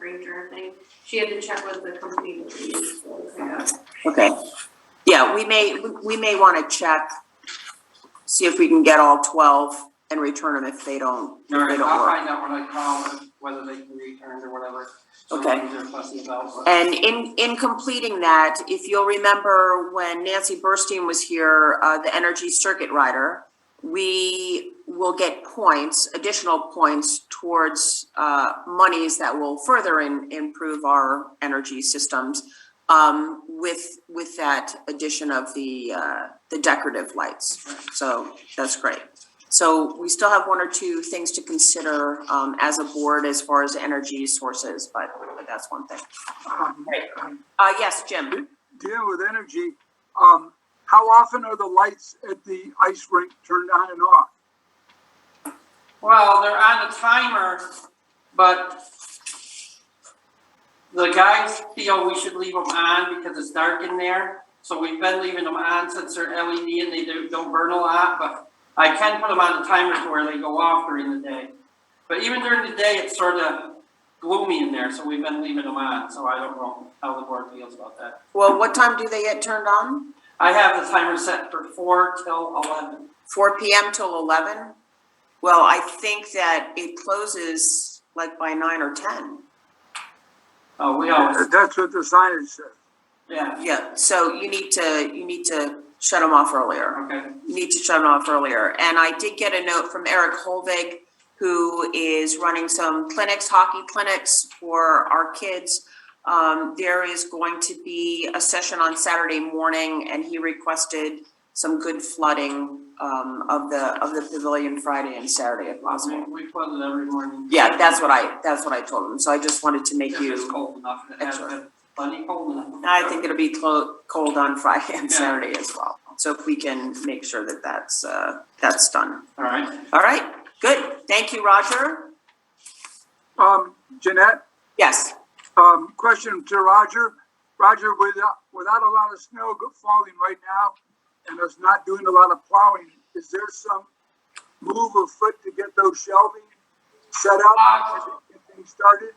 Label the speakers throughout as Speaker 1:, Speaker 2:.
Speaker 1: signature thing. She had to check with the company that we use. so, yeah.
Speaker 2: Okay. Yeah, we may, we may want to check, see if we can get all twelve and return them if they don't,
Speaker 3: All
Speaker 2: if they
Speaker 3: right,
Speaker 2: don't
Speaker 3: I'll
Speaker 2: work.
Speaker 3: find out when I call them, whether they can be returned or whatever. some
Speaker 2: Okay.
Speaker 3: things they're fussy about, but-
Speaker 2: And in, in completing that, if you'll remember when Nancy Burstein was here, uh, the energy circuit rider, we will get points, additional points towards, uh, monies that will further in, improve our energy systems. Um, with, with that addition of the, uh, the decorative lights. So that's great. So we still have one or two things to consider, um, as a board as far as energy sources, but but that's one thing.
Speaker 4: Um,
Speaker 2: Uh, yes, Jim.
Speaker 4: Dealing with energy, um, how often are the lights at the ice rink turned on and off?
Speaker 3: Well, they're on a timer, but the guys feel we should leave them on because it's dark in there. So we've been leaving them on since they're LED and they do- don't burn a lot, but I can put them on a timer to where they go off during the day. But even during the day, it's sort of gloomy in there, so we've been leaving them on, so I don't know how the board feels about that.
Speaker 2: Well, what time do they get turned on?
Speaker 3: I have the timer set for four till eleven.
Speaker 2: Four PM till eleven? Well, I think that it closes like by nine or ten.
Speaker 3: Oh, we always,
Speaker 4: That's what the signage says.
Speaker 3: yeah,
Speaker 2: Yeah, so you need to, you need to shut them off earlier.
Speaker 3: okay.
Speaker 2: need to shut off earlier. And I did get a note from Eric Holvig, who is running some clinics, hockey clinics for our kids. Um, there is going to be a session on Saturday morning and he requested some good flooding, um, of the, of the pavilion Friday and Saturday if
Speaker 3: We,
Speaker 2: possible.
Speaker 3: we flood it every morning.
Speaker 2: Yeah, that's what I, that's what I told him. So I just wanted to make
Speaker 3: If it's
Speaker 2: you,
Speaker 3: cold enough, and it has
Speaker 2: Excellent.
Speaker 3: been plenty cold enough.
Speaker 2: I think it'll be clo- cold on Friday and
Speaker 3: Yeah.
Speaker 2: Saturday as well. So if we can make sure that that's, uh, that's done.
Speaker 3: All right,
Speaker 2: All right, good. Thank you, Roger.
Speaker 4: Um, Jeanette,
Speaker 2: Yes,
Speaker 4: um, question to Roger. Roger, without, without a lot of snow go- falling right now and us not doing a lot of plowing, is there some move of foot to get those shelving set up? and Get things started?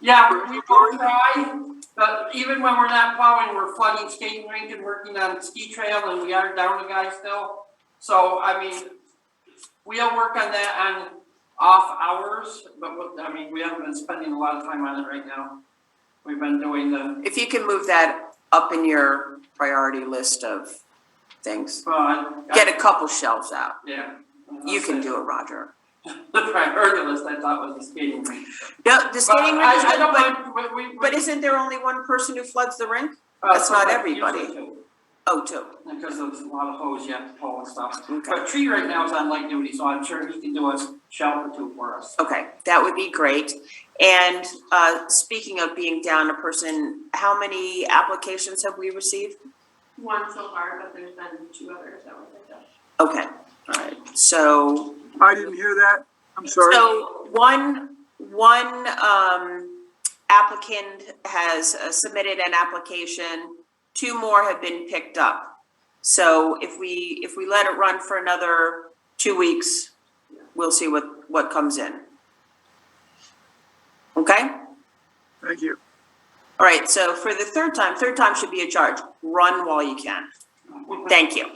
Speaker 3: yeah, we- we will try, but even when we're not plowing, we're flooding skating rink and working on ski trail, and we are down a guy still. So, I mean, we'll work on that on off hours, but, what- I mean, we haven't been spending a lot of time on it right now. We've been doing the,
Speaker 2: if you can move that up in your priority list of things.
Speaker 3: well, I.
Speaker 2: Get a couple shelves out.
Speaker 3: Yeah.
Speaker 2: You can do it, Roger.
Speaker 3: The priority list, I thought was the skating rink.
Speaker 2: No, the skating
Speaker 3: But I-
Speaker 2: rink, is
Speaker 3: I don't
Speaker 2: good,
Speaker 3: mind, we- we- we-
Speaker 2: but, but isn't there only one person who floods the rink?
Speaker 3: Uh,
Speaker 2: That's not
Speaker 3: but
Speaker 2: everybody.
Speaker 3: usually two,
Speaker 2: Oh, two.
Speaker 3: Because of a lot of hose you have to pull and stuff.
Speaker 2: Okay,
Speaker 3: But Tree right now is on light duty, so I'm sure he can do a shelter two for us.
Speaker 2: okay, that would be great. And, uh, speaking of being down a person, how many applications have we received?
Speaker 1: One so far, but there's been two others that were picked up.
Speaker 2: Okay, all right, so
Speaker 4: I didn't hear that. I'm sorry.
Speaker 2: So one, one um, applicant has uh, submitted an application, two more have been picked up. So if we, if we let it run for another two weeks, we'll see what, what comes in. Okay?
Speaker 4: Thank you.
Speaker 2: All right, so for the third time, third time should be a charge, run while you can. Thank you.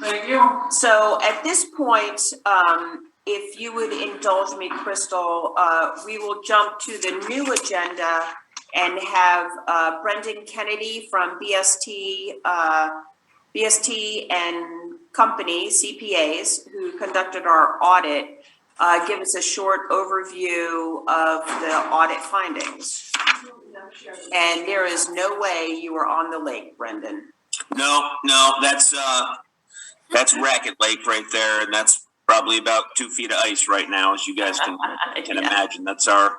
Speaker 3: Thank you.
Speaker 2: So at this point, um, if you would indulge me, Crystal, uh, we will jump to the new agenda and have, uh, Brendan Kennedy from BST, uh, BST and Company CPAs, who conducted our audit, uh, give us a short overview of the audit findings.
Speaker 1: No, sure.
Speaker 2: And there is no way you were on the lake, Brendan.
Speaker 5: No, no, that's uh, that's Racket Lake right there, and that's probably about two feet of ice right now, as you guys can can
Speaker 2: Yeah.
Speaker 5: imagine. That's our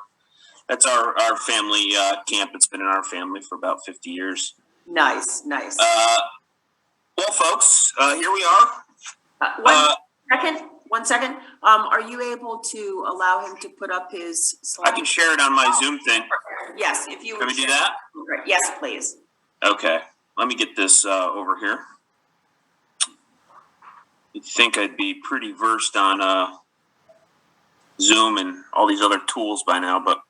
Speaker 5: that's our our family uh, camp. It's been in our family for about fifty years.
Speaker 2: Nice, nice.
Speaker 5: Uh, well, folks, uh, here we are.
Speaker 2: Uh, one
Speaker 5: Uh,
Speaker 2: Second, one second, um, are you able to allow him to put up his
Speaker 5: I
Speaker 2: slide?
Speaker 5: can share it on my Zoom thing.
Speaker 2: Yes, if you would.
Speaker 5: Can we do
Speaker 2: share.
Speaker 5: that?
Speaker 2: Great. Yes, please.
Speaker 5: Okay, let me get this uh, over here. You'd think I'd be pretty versed on uh, Zoom and all these other tools by now, but